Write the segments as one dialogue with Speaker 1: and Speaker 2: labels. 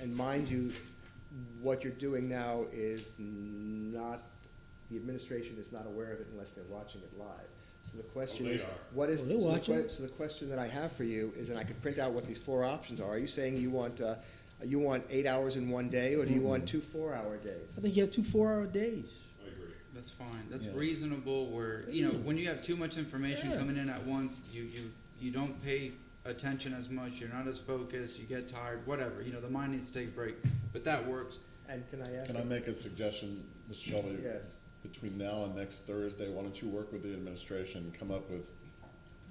Speaker 1: And mind you, what you're doing now is not, the administration is not aware of it unless they're watching it live. So the question
Speaker 2: they
Speaker 1: is,
Speaker 2: are.
Speaker 1: what is,
Speaker 3: Oh,
Speaker 1: so
Speaker 3: they're
Speaker 1: the
Speaker 3: watching
Speaker 1: que-
Speaker 3: it.
Speaker 1: so the question that I have for you is, and I could print out what these four options are, are you saying you want, uh, you want eight hours in one day, or do you want
Speaker 3: Mm-hmm.
Speaker 1: two four-hour days?
Speaker 3: I think you have two four-hour days.
Speaker 2: I agree.
Speaker 4: That's fine. That's
Speaker 3: Yeah.
Speaker 4: reasonable. Where you know when you have too much information
Speaker 3: Yeah.
Speaker 4: coming in at once, you you you don't pay attention as much. You're not as focused. You get tired. Whatever. You know the mind needs to take a break. But that works.
Speaker 1: And can I ask?
Speaker 5: Can I
Speaker 1: a-
Speaker 5: make a suggestion, Mr. Shelby?
Speaker 1: Yes.
Speaker 5: Between now and next Thursday, why don't you work with the administration, and come up with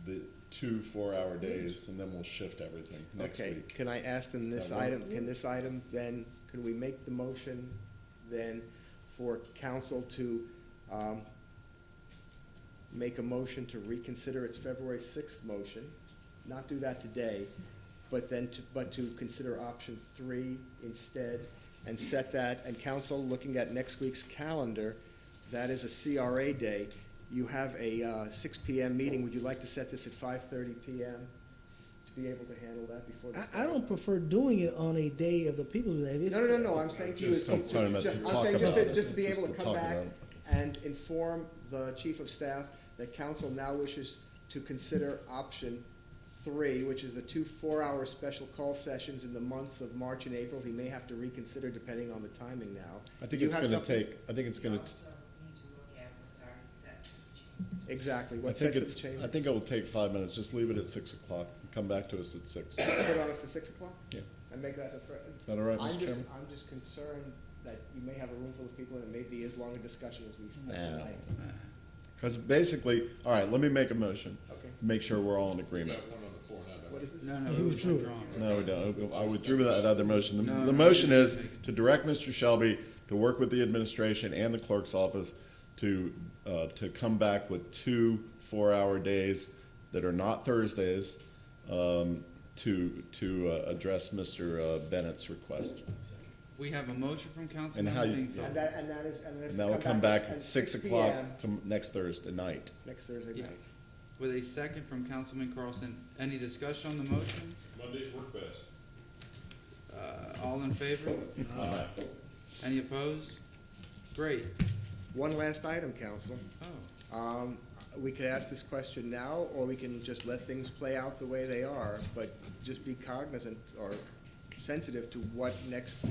Speaker 5: the two four-hour days, and then we'll shift everything next
Speaker 1: Okay,
Speaker 5: week.
Speaker 1: can I ask them this
Speaker 5: Does that work?
Speaker 1: item, can this item then, can we make the motion then for council to, um, make a motion to reconsider its February sixth motion, not do that today, but then to, but to consider option three instead and set that, and council, looking at next week's calendar, that is a CRA day. You have a, uh, six P M meeting, would you like to set this at five thirty P M to be able to handle that before the
Speaker 3: I, I
Speaker 1: start?
Speaker 3: don't prefer doing it on a day of the People's Day. If-
Speaker 1: No, no, no, no, I'm saying to you, is
Speaker 5: Just
Speaker 1: to-
Speaker 5: I'm
Speaker 1: to-
Speaker 5: talking
Speaker 1: ju-
Speaker 5: about to
Speaker 1: I'm
Speaker 5: talk
Speaker 1: saying just to,
Speaker 5: about it.
Speaker 1: just to be able to
Speaker 5: Just to
Speaker 1: come
Speaker 5: talk
Speaker 1: back
Speaker 5: about it.
Speaker 1: and inform the chief of staff that council now wishes to consider option three, which is the two four-hour special call sessions in the months of March and April. He may have to reconsider depending on the timing now.
Speaker 5: I think
Speaker 1: Do you
Speaker 5: it's
Speaker 1: have
Speaker 5: gonna
Speaker 1: something-
Speaker 5: take, I think it's gonna,
Speaker 6: Also need to look at what's already set for the chambers.
Speaker 1: Exactly,
Speaker 5: I
Speaker 1: what's set
Speaker 5: think
Speaker 1: for the
Speaker 5: it's,
Speaker 1: change?
Speaker 5: I think it will take five minutes, just leave it at six o'clock, and come back to us at six.
Speaker 1: Put it on it for six o'clock?
Speaker 5: Yeah.
Speaker 1: And make that the first. Is
Speaker 5: that all right, Mr.
Speaker 1: I'm just,
Speaker 5: Chairman?
Speaker 1: I'm just concerned that you may have a room full of people and it may be as long a discussion as we've had
Speaker 5: Nah.
Speaker 1: tonight.
Speaker 5: Because basically, all right, let me make a motion,
Speaker 1: Okay.
Speaker 5: make sure we're all in
Speaker 2: We
Speaker 5: agreement.
Speaker 2: got one on the floor now,
Speaker 1: What
Speaker 2: don't
Speaker 1: is this?
Speaker 4: No, no,
Speaker 3: You
Speaker 4: it was
Speaker 3: withdrew.
Speaker 4: withdrawn.
Speaker 5: No, we don't. I withdrew that other motion.
Speaker 4: No,
Speaker 5: The,
Speaker 4: no,
Speaker 5: the motion
Speaker 4: you
Speaker 5: is
Speaker 4: didn't make it.
Speaker 5: to direct Mr. Shelby to work with the administration and the clerk's office to, uh, to come back with two four-hour days that are not Thursdays, um, to, to, uh, address Mr. uh, Bennett's request.
Speaker 4: We have a motion from council.
Speaker 5: And how you-
Speaker 1: And that, and that is, and that's.
Speaker 5: And that will come back at six o'clock
Speaker 1: PM
Speaker 5: to next Thursday night.
Speaker 1: Next Thursday
Speaker 4: Yeah.
Speaker 1: night.
Speaker 4: With a second from Councilman Carlson. Any discussion on the motion?
Speaker 2: we? Mondays work best.
Speaker 4: Uh, all in favor? Any opposed? Great.
Speaker 1: One last item, council.
Speaker 4: Oh,
Speaker 1: Um, we could ask this question now, or we can just let things play out the way they are, but just be cognizant or sensitive to what next,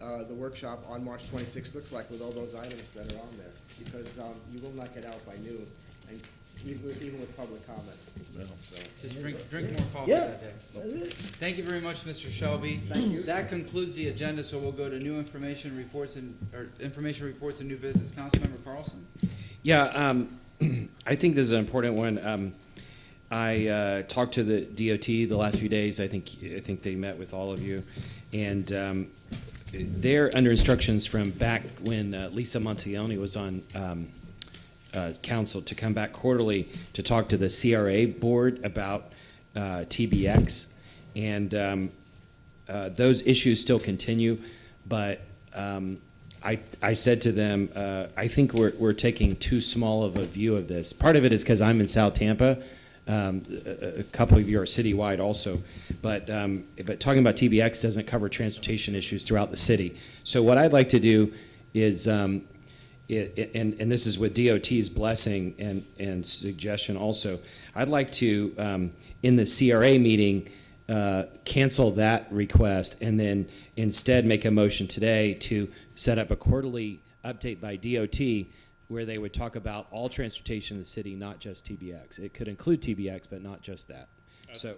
Speaker 1: uh, the workshop on March twenty-sixth looks like with all those items that are on there, because, um, you will not get out by noon, and even, even with public comment.
Speaker 4: just drink, drink more coffee
Speaker 3: Yeah.
Speaker 4: that day.
Speaker 3: That's it.
Speaker 4: Thank you very much, Mr. Shelby.
Speaker 1: Thank you.
Speaker 4: That concludes the agenda, so we'll go to new information reports and, or information reports and new business. Councilmember Carlson?
Speaker 7: Yeah, um, I think this is an important one. Um, I uh, talked to the DOT the last few days. I think I think they met with all of you, and um, they're under instructions from back when uh, Lisa Montioni was on um, uh, council to come back quarterly to talk to the CRA board about uh, TBX, and um, uh, those issues still continue, but um, I, I said to them, uh, I think we're, we're taking too small of a view of this. Part of it is because I'm in South Tampa. Um, a, a- a couple of you are citywide also, but um, but talking about TBX doesn't cover transportation issues throughout the city. So what I'd like to do is um, it- it- and, and this is with DOT's blessing and, and suggestion also, I'd like to, um, in the CRA meeting, uh, cancel that request and then instead make a motion today to set up a quarterly update by DOT where they would talk about all transportation in the city, not just TBX. It could include TBX, but not just that. So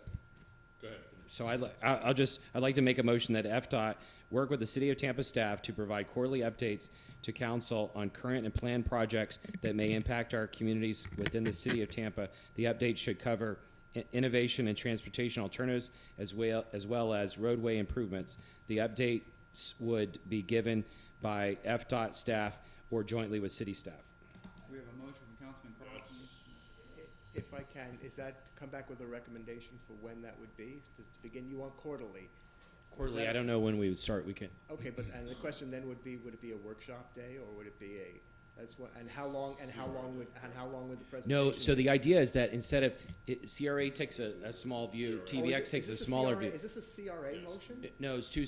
Speaker 2: Go ahead.
Speaker 7: so I, I'll just, I'd like to make a motion that FDOT work with the City of Tampa staff to provide quarterly updates to council on current and planned projects that may impact our communities within the City of Tampa. The update should cover i- innovation and transportation alternatives as well, as well as roadway improvements. The updates would be given by FDOT staff or jointly with city staff.
Speaker 4: We have a motion from Councilman Carlson.
Speaker 1: If I can, is that, come back with a recommendation for when that would be, to to begin, you want quarterly?
Speaker 7: Quarterly, I don't know when we would start, we can,
Speaker 1: Okay, but, and the question then would be, would it be a workshop day, or would it be a, that's what, and how long, and how long would, and how long would the presentation?
Speaker 7: No, so
Speaker 1: be?
Speaker 7: the idea is that instead of, it- CRA takes a, a small view,
Speaker 1: Oh, is it-
Speaker 7: TBX
Speaker 1: is
Speaker 7: takes a
Speaker 1: this
Speaker 7: smaller
Speaker 1: CRA
Speaker 7: view.
Speaker 1: Is this a CRA motion?
Speaker 7: No, it's two